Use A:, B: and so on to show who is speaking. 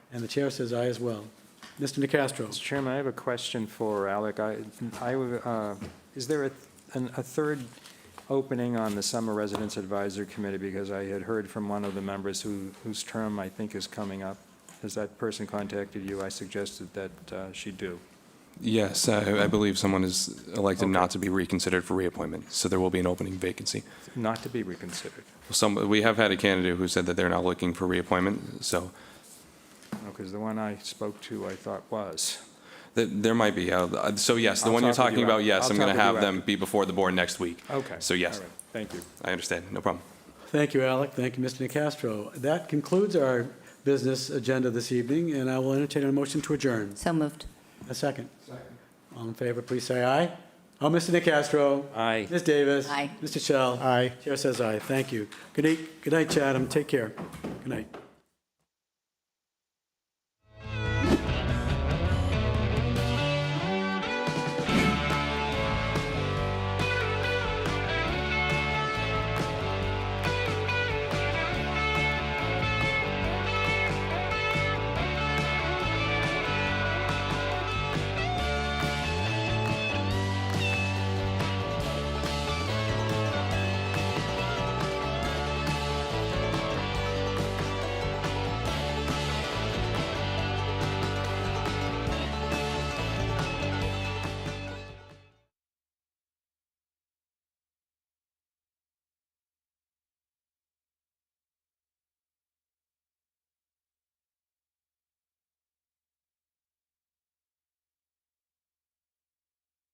A: And the chair says aye as well. Mr.
B: Mr.
A: Nacastro?
B: Chairman, I have a question for Alec. I, I would, uh, is there a, an- a third opening on the Summer Residence Advisory Committee? Because I had heard from one of the members who, whose term I think is coming up. Has that person contacted you? I suggested that uh, she do.
C: Yes, uh, I I believe someone is elected
B: Okay.
C: not to be reconsidered for reappointment, so there will be an opening vacancy.
B: Not to be reconsidered,
C: Some, we have had a candidate who said that they're not looking for reappointment, so
B: because the one I spoke to, I thought was.
C: th- there might be. uh, So yes, the
B: I'll
C: one you're
B: talk with
C: talking
B: you
C: about,
B: after.
C: yes,
B: I'll
C: I'm
B: talk
C: going to
B: with you Oh.
C: have them
B: after.
C: be before the board next week.
B: Okay.
C: So yes,
B: All right. Thank you.
C: I understand, no problem.
A: Thank you, Alec. Thank you, Mr. Nacastro. That concludes our business agenda this evening, and I will entertain a motion to adjourn.
D: So moved.
A: A second. All in favor, please say aye. Oh, Mr. Nacastro?
B: Aye.
A: Ms. Davis?
D: Aye.
A: Mr. Shell? Aye. Chair says aye. Thank you. Good night, good night, Chatham. Take care. Good night.